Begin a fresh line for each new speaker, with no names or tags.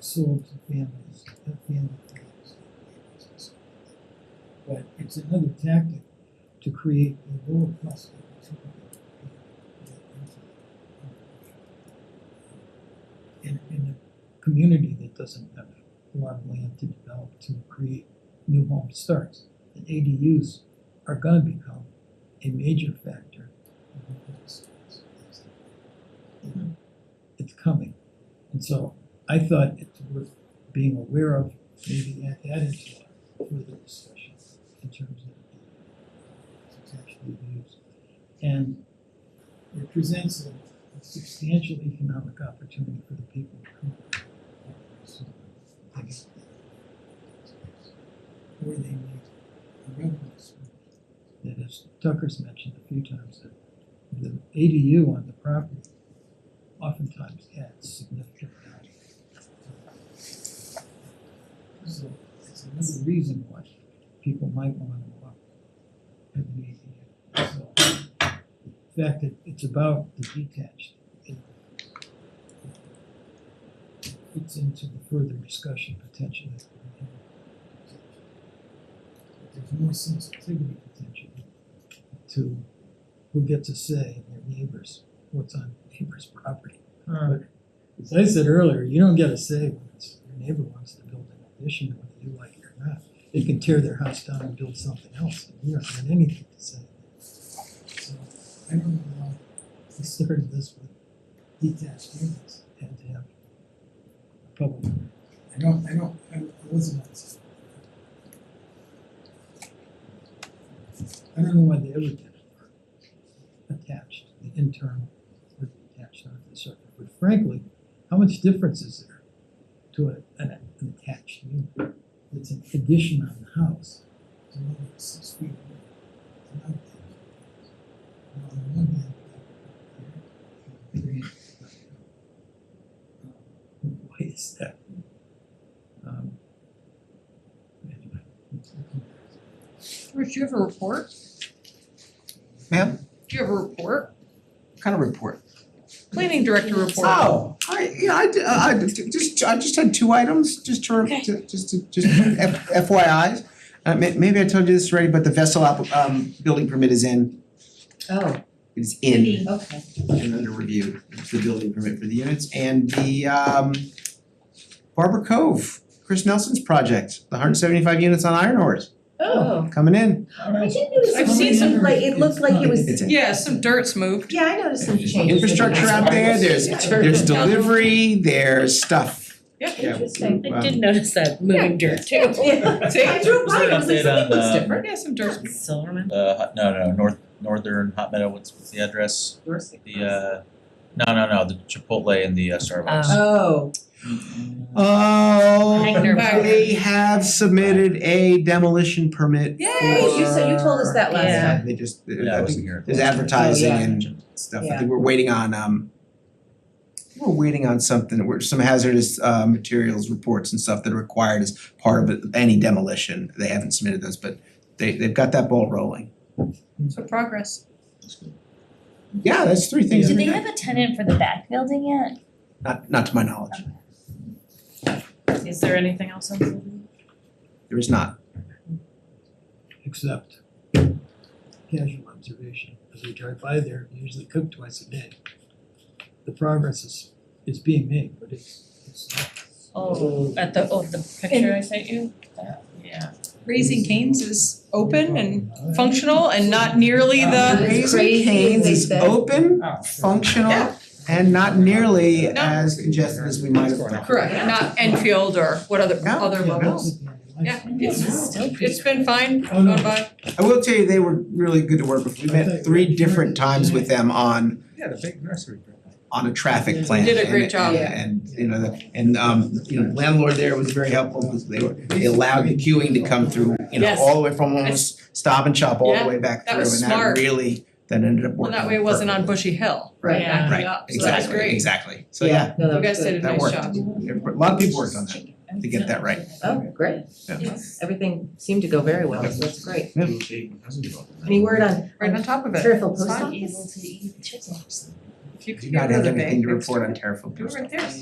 serves the families, the family. values. But it's another tactic to create a lower cost of opportunity. In, in a community that doesn't have a lot of land to develop to create new home starts. And ADUs are gonna become a major factor. in new home starts. It's coming, and so I thought it's worth being aware of, maybe add that into our further discussion in terms of it's actually used. And it presents a a substantial economic opportunity for the people. of Cooper. So, I guess, Where they need a revenue stream. That as Tucker's mentioned a few times, that the ADU on the property oftentimes adds significant value. So it's another reason why people might wanna walk at an ADU. So the fact that it's about the detached, it fits into the further discussion potentially. that we have. There's more sensitivity potentially to who gets a say in their neighbors, what's on neighbor's property. But as I said earlier, you don't get a say when it's your neighbor wants to build an addition, whether you like it or not. They can tear their house down and build something else, and you don't have anything to say. So I don't know why we started this with detached units and to have a public.
I don't, I don't, I I wasn't on this.
I don't know why they ever did it. Attached, the internal or attached onto the circuit, but frankly, how much difference is there to a, an, an attached unit? It's an addition on the house,
I don't know, it's six feet. away. And I- On the one hand,
why is that? Um, anyway, it's-
Rich, do you have a report?
Ma'am?
Do you have a report?
Kind of report.
Planning director report.
Oh, I, yeah, I did, I I did- just, I just had two items, just to,
Okay.
to- just to, just F- FYIs. Uh, may, maybe I told you this already, but the vessel app, um, building permit is in,
Oh,
it is in
okay.
and under review, It's the building permit for the units. And the, um, Barber Cove, Chris Nelson's project, the hundred seventy-five units on Iron Horse,
Oh.
coming in.
I didn't notice
I've
some-
seen some-
like, it looked like it was,
It's in.
Yeah, some dirt's moved.
yeah, I noticed some changes. in the
Infrastructure out there, there's,
Yeah.
there's delivery, there's stuff.
Yep.
Yeah.
Interesting.
I did notice that moving dirt too.
Yeah.
See?
I drove
Was
by,
there
I
an
was like,
update
something
on,
looks
uh,
different.
Yeah, some dirt's. moved.
Silverman.
Uh, Hot- no, no, North, Northern Hot Meadow, what's, what's the address? The, uh, no, no, no, the Chipotle and the uh, Starbucks.
Oh,
Oh,
Hang their boat.
they have submitted a demolition permit
Yay,
hey, you said, you told us that last
Yeah.
time.
for- They just,
Yeah,
I
I
think
wasn't here.
there's advertising
Oh, yeah.
and stuff, I
Yeah.
think we're waiting on, um, we're waiting on something, we're, some hazardous, uh, materials reports and stuff that are required as part of it- any demolition, they haven't submitted those, but they, they've got that ball rolling.
So progress.
Yeah, that's three things
Do
in
they
there.
have a tenant for the back building yet?
not, not to my knowledge,
Is there anything else on the building?
there is not.
except casual observation, as we drive by there, we usually cook twice a day. The progress is, is being made, but it's, it's not.
Oh, at the, oh, the picture I sent you? Uh, Yeah.
Raising Canes is open and functional and not nearly
That
the,
is
Raising
crazy,
Cane's
they
is
said.
Oh,
open, functional,
Yeah.
and not nearly
No.
as congested as we might have thought.
correct, not Enfield or what other,
No,
other
yeah, no.
levels. Yeah, it's, it's been fine,
Oh, no.
gone by.
I will tell you, they were really good to work with. We met three different times with them on
Yeah, the big nursery.
on a traffic plan.
Did a great
and-
job.
And you know, the- and um, you know, landlord there was very helpful because they were, they allowed the queuing to come through, you know,
Yes.
all the way from almost stop and shop all
Yeah,
the way back
that
through,
was
and that
smart.
really, that ended up
Well,
working.
that way it wasn't on
perfectly.
Bushy Hill.
Right.
Yeah.
Backing
Right,
up, so that's
Exactly,
great.
exactly. So yeah,
No, that
You
was
guys
good.
did a
that
nice
worked.
job.
A lot of people worked on that to get that right.
Oh, great.
Yeah.
Everything seemed to go very well, so that's great.
Yeah.
Any word on
Right on top of it.
Fairfield
It's
post
fine.
office?
to eat chips.
If you
Do
could
not
get rid
have
of it.
anything to report on Terriffill
Do it
Post
right there.
Office.